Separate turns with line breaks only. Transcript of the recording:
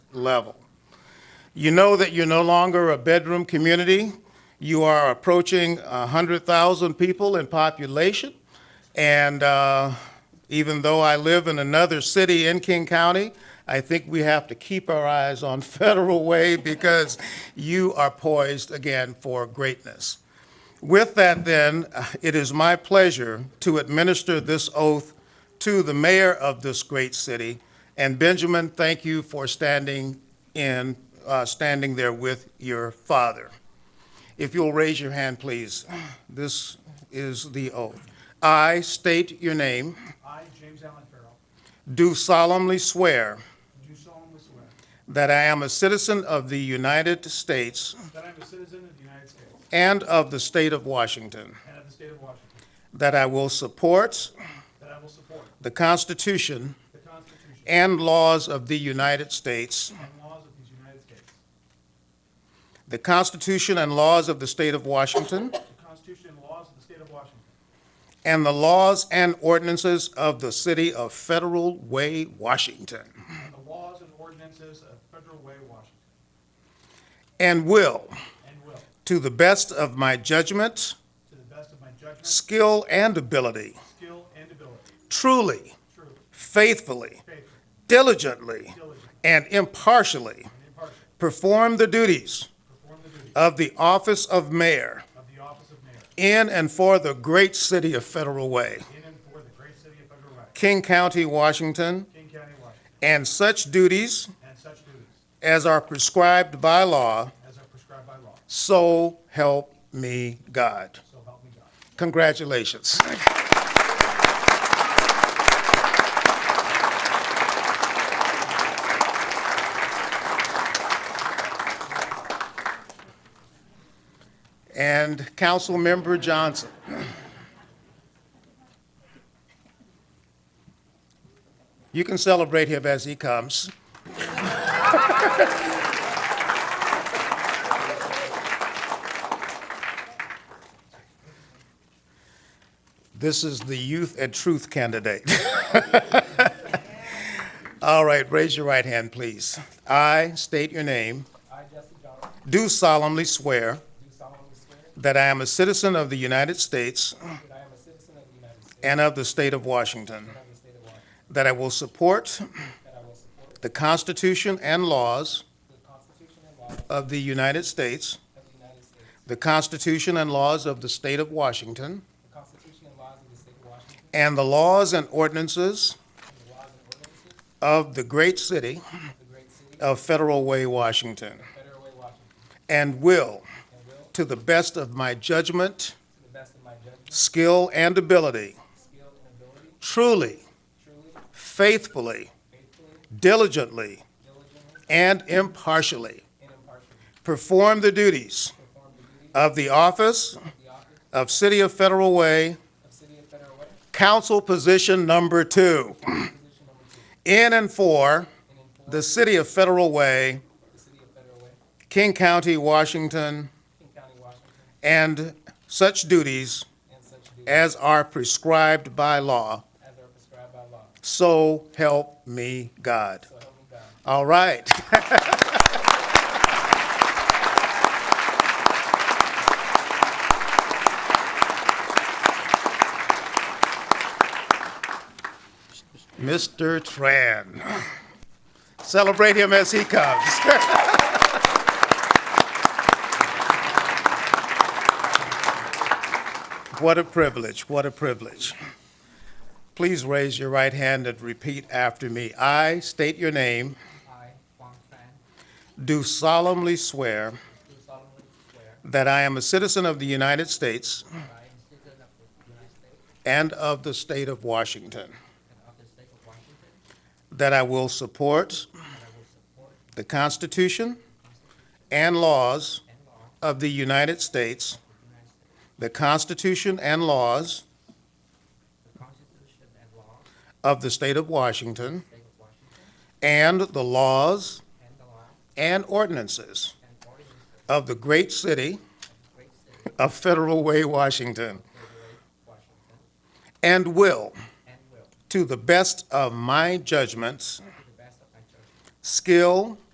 level. You know that you're no longer a bedroom community. You are approaching 100,000 people in population. And uh, even though I live in another city in King County, I think we have to keep our eyes on Federal Way because you are poised again for greatness. With that, then, it is my pleasure to administer this oath to the mayor of this great city. And Benjamin, thank you for standing in, uh, standing there with your father. If you'll raise your hand, please. This is the oath. I state your name,
I, James Allen Farrell,
do solemnly swear
do solemnly swear
that I am a citizen of the United States
that I am a citizen of the United States
and of the state of Washington,
and of the state of Washington,
that I will support
that I will support
the Constitution
the Constitution
and laws of the United States,
and laws of these United States,
the Constitution and laws of the state of Washington,
the Constitution and laws of the state of Washington,
and the laws and ordinances of the city of Federal Way, Washington,
and the laws and ordinances of Federal Way, Washington,
and will,
and will, to
to the best of my judgment,
the best of my judgment,
skill, and ability,
skill, and ability,
truly,
truly,
faithfully,
faithfully,
diligently,
diligently,
and impartially
and impartially,
perform the duties
perform the duties
of the office of mayor
of the office of mayor
in and for the great city of Federal Way,
in and for the great city of Federal Way,
King County, Washington,
King County, Washington,
and such duties
and such duties
as are prescribed by law,
as are prescribed by law,
so help me God.
so help me God.
Congratulations. And Councilmember Johnson. You can celebrate him as he comes. This is the youth and truth candidate. All right, raise your right hand, please. I state your name,
I, Jesse Johnson,
do solemnly swear
do solemnly swear
that I am a citizen of the United States
that I am a citizen of the United States
and of the state of Washington,
and of the state of Washington,
that I will support
that I will support
the Constitution and laws
the Constitution and laws
of the United States,
of the United States,
the Constitution and laws of the state of Washington,
the Constitution and laws of the state of Washington,
and the laws and ordinances
and the laws and ordinances
of the great city
of the great city of
of Federal Way, Washington,
Federal Way, Washington,
and will,
and will,
to the best of my judgment,
to the best of my judgment,
skill, and ability,
skill, and ability,
truly,
truly,
faithfully,
faithfully,
diligently,
diligently,
and impartially
and impartially,
perform the duties
perform the duties
of the office
of the office
of City of Federal Way,
of City of Federal Way,
Council Position Number Two,
position number two,
in and for
and enforce
the City of Federal Way,
the city of Federal Way,
King County, Washington,
King County, Washington,
and such duties
and such duties
as are prescribed by law.
as are prescribed by law.
So help me God.
So help me God.
All right. Mr. Tran. Celebrate him as he comes. What a privilege, what a privilege. Please raise your right hand and repeat after me. I state your name.
I, Huang Tran,
Do solemnly swear
do solemnly swear
that I am a citizen of the United States
that I am a citizen of the United States
and of the state of Washington,
and of the state of Washington,
that I will support
that I will support
the Constitution and laws
and law of
of the United States,
the United States,
the Constitution and laws
the Constitution and laws of
of the state of Washington,
the state of Washington,
and the laws
and the law
and ordinances
and ordinances
of the great city
of the great city
of Federal Way, Washington,
of Washington,
and will,
and will, to
to the best of my judgments,
the best of my judgment,
skill,